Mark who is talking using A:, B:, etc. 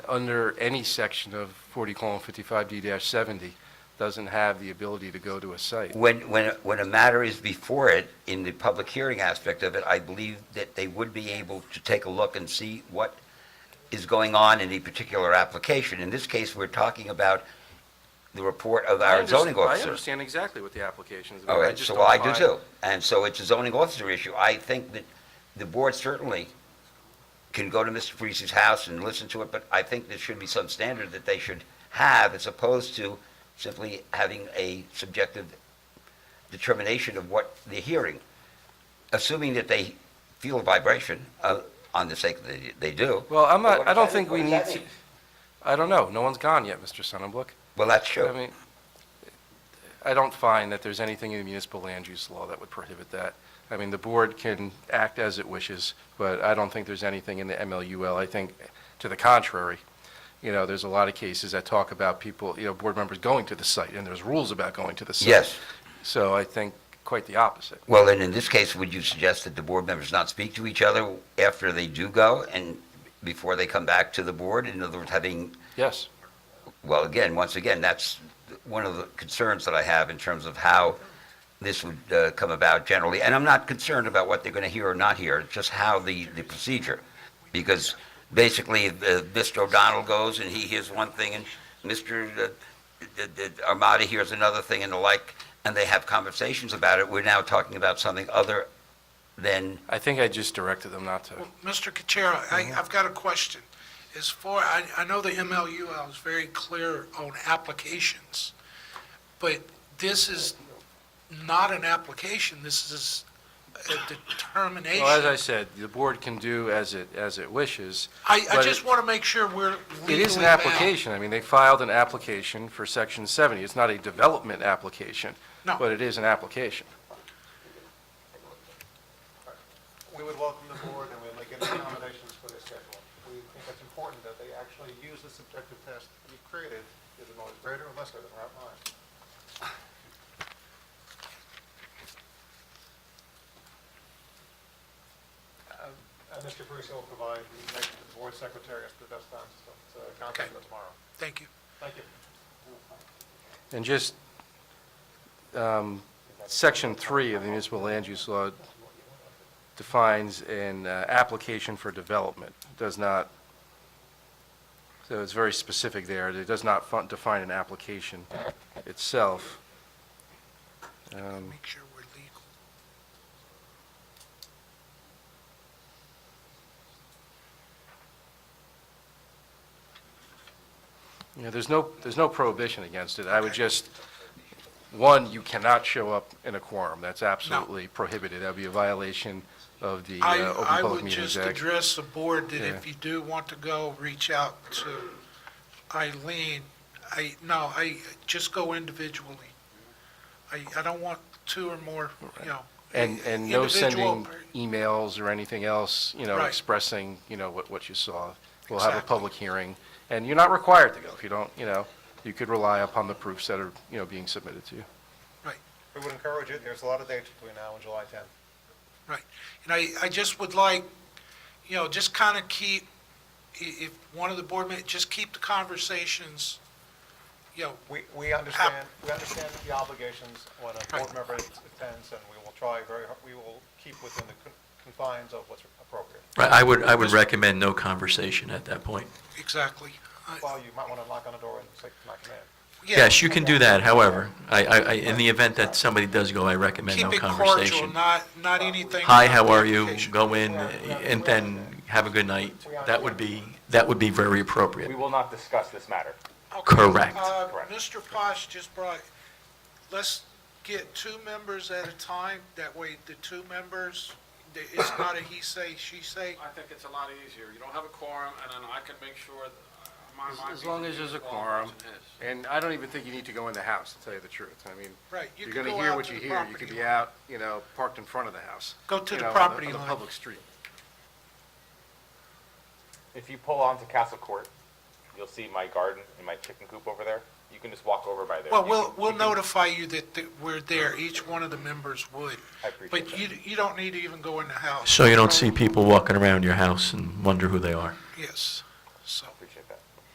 A: under any section of 40 colon 55D-70 doesn't have the ability to go to a site.
B: When, when, when a matter is before it, in the public hearing aspect of it, I believe that they would be able to take a look and see what is going on in a particular application. In this case, we're talking about the report of
A: I
B: our
A: underst-
B: zoning
A: I
B: officer.
A: understand exactly what the application is about.
B: All right,
A: just
B: so
A: don't
B: I do
A: find-
B: too. And so it's a zoning officer issue. I think that the board certainly can go to Mr. Parisi's house and listen to it, but I think there should be some standard that they should have as opposed to simply having a subjective determination of what they're hearing, assuming that they feel a vibration, uh, on the sake that they- they do.
A: Well, I'm
B: But what
A: not, I
B: does
A: don't
B: that-
A: think
B: what
A: we
B: does
A: need
B: that
A: to,
B: mean?
A: I don't know, no one's gone yet, Mr. Sonnenblick.
B: Well, that's true.
A: I mean, I don't find that there's anything in the municipal land use law that would prohibit that. I mean, the board can act as it wishes, but I don't think there's anything in the MLUL. I think, to the contrary, you know, there's a lot of cases that talk about people, you know, board members going to the site, and there's rules about going to the site.
B: Yes.
A: So I think quite the opposite.
B: Well, then in this case, would you suggest that the board members not speak to each other after they do go and before they come back to the board? In other words, having,
A: Yes.
B: well, again, once again, that's one of the concerns that I have in terms of how this would uh, come about generally. And I'm not concerned about what they're going to hear or not hear, it's just how the, the procedure. Because basically, if, uh, Mr. O'Donnell goes and he hears one thing and Mr. uh, uh, uh, Armada hears another thing and the like, and they have conversations about it. We're now talking about something other than
A: I think I just directed them not to.
C: Well, Mr. Kachara, I, I've got a question. As far, I, I know the MLUL is very clear on applications, but this is not an application, this is a determination.
A: Well, as I said, the board can do as it, as it wishes.
C: I, I
A: but
C: just want to make sure we're legally
A: It is an
C: bound.
A: application. I mean, they filed an application for Section 70. It's not a development application.
C: No.
A: But it is an application.
D: We would welcome the board and we'd make any accommodations for their schedule. We think it's important that they actually use the subjective test we've created, is it always greater or lesser than our mine? Um, And Mr. Parisi will provide the information to the board secretary as to the best time to uh, contact them tomorrow.
C: Thank you.
D: Thank you.
A: And just, um, Section 3 of the municipal land use law defines an uh, application for development, does not, so it's very specific there. It does not fun- define an application itself. Um,
C: Make sure we're legal.
A: Yeah, there's no, there's no prohibition against it. I would just, one, you cannot show up in a quorum. That's absolutely prohibited. That would be a violation of the
C: I,
A: uh, Open
C: I
A: Public
C: would
A: Meetings
C: just
A: Act.
C: address the board that
A: Yeah.
C: if you do want to go, reach out to Eileen. I, no, I, just go individually. I, I don't want two or more, you know.
A: And, and no
C: individual-
A: sending emails or anything else, you know,
C: Right.
A: expressing, you know, what, what you saw. We'll have a
C: Exactly.
A: public hearing, and you're not required to go. If you don't, you know, you could rely upon the proofs that are, you know, being submitted to you.
D: We would encourage it. There's a lot of dates between now and July 10th.
C: And I, I just would like, you know, just kind of keep, i- if one of the board members, just keep the conversations, you know,
D: We, we understand, we understand the obligations when a board member attends, and we will try very, hard. we will keep within the con- confines of what's appropriate.
E: I I would, I would recommend no conversation at that point.
C: exactly. I-
D: Well, you might want to knock on the door and say, "Come on in."
C: Yeah,
E: Yes, you can do that, however, I, I, I- in the event that somebody does go, I recommend no
C: keep it cordial,
E: conversation.
C: not, not anything.
E: Hi,
C: about
E: how
C: the
E: are you?
C: application.
E: Go in, and then have a good night. That would be, that would be very
F: We
E: appropriate.
F: will not discuss this matter.
C: Okay,
E: Correct.
C: uh,
F: Correct.
C: Mr. Posh just brought, let's get two members at a time, that way the two members, the- it's not a he say, she say.
G: I think it's a lot easier. You don't have a quorum, and then I can make sure that uh, my
A: As-
G: mind...
A: as long as there's a quorum. And I don't even think you need to go in the house, to tell you the truth. I mean,
C: Right, you
A: You're
C: can
A: going to
C: go
A: hear
C: out
A: what
C: to
A: you
C: the
A: hear. You could
C: property
A: be
C: line.
A: out, you know, parked in front of the house.
C: Go to
A: you
C: the
A: know, on
C: property
A: On
C: line.
A: the public street.
F: If you pull onto Castle Court, you'll see my garden and my chicken coop over there. You can just walk over by there.
C: Well,
F: You
C: we'll,
F: can-
C: we'll
F: you can-
C: notify you that, that we're there, each one of the members would.
F: I appreciate
C: But
F: that.
C: you, you don't need to even go in the house.
E: So you don't see people walking around your house and wonder who they are.
C: Yes, so,
F: Appreciate